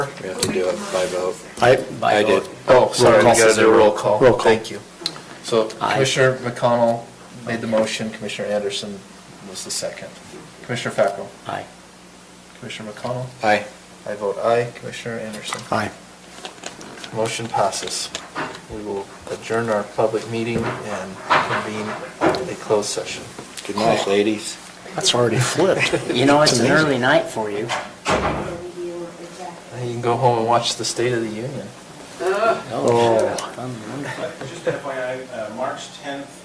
We have to do it by vote. I, I did. Oh, sorry, we Roll call. gotta do a roll call. Roll call. Thank you. So Aye. Commissioner McConnell made the motion, Commissioner Anderson was the second. Commissioner Fackrell, aye. Commissioner McConnell, Aye. I vote aye, Commissioner Anderson. Aye. Motion passes. We will adjourn our public meeting and convene a closed session. Good night, ladies. That's already flipped. You know, it's an It's amazing. early night for you. Now You can go home and watch the State of the Union. Oh. Just FYI, uh, March 10th